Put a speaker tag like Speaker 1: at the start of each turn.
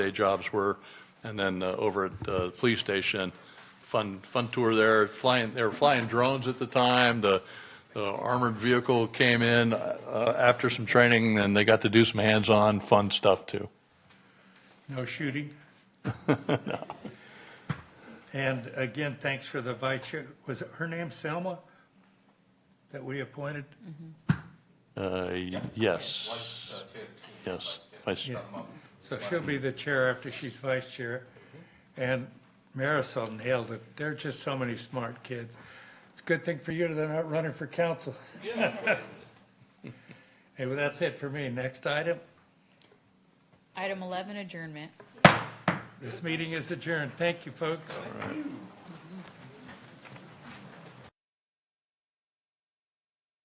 Speaker 1: day jobs were, and then uh, over at uh, the police station, fun, fun tour there, flying, they were flying drones at the time, the the armored vehicle came in uh, after some training, and they got to do some hands-on, fun stuff, too.
Speaker 2: No shooting? And again, thanks for the vice chair. Was it her name Selma that we appointed?
Speaker 1: Uh, y- Yes. Yes. Vice-
Speaker 2: So she'll be the chair after she's vice chair. And Marisol nailed it. There are just so many smart kids. It's a good thing for you that they're not running for council. Hey, well, that's it for me. Next item,
Speaker 3: Item 11, adjournment.
Speaker 2: this meeting is adjourned. Thank you, folks.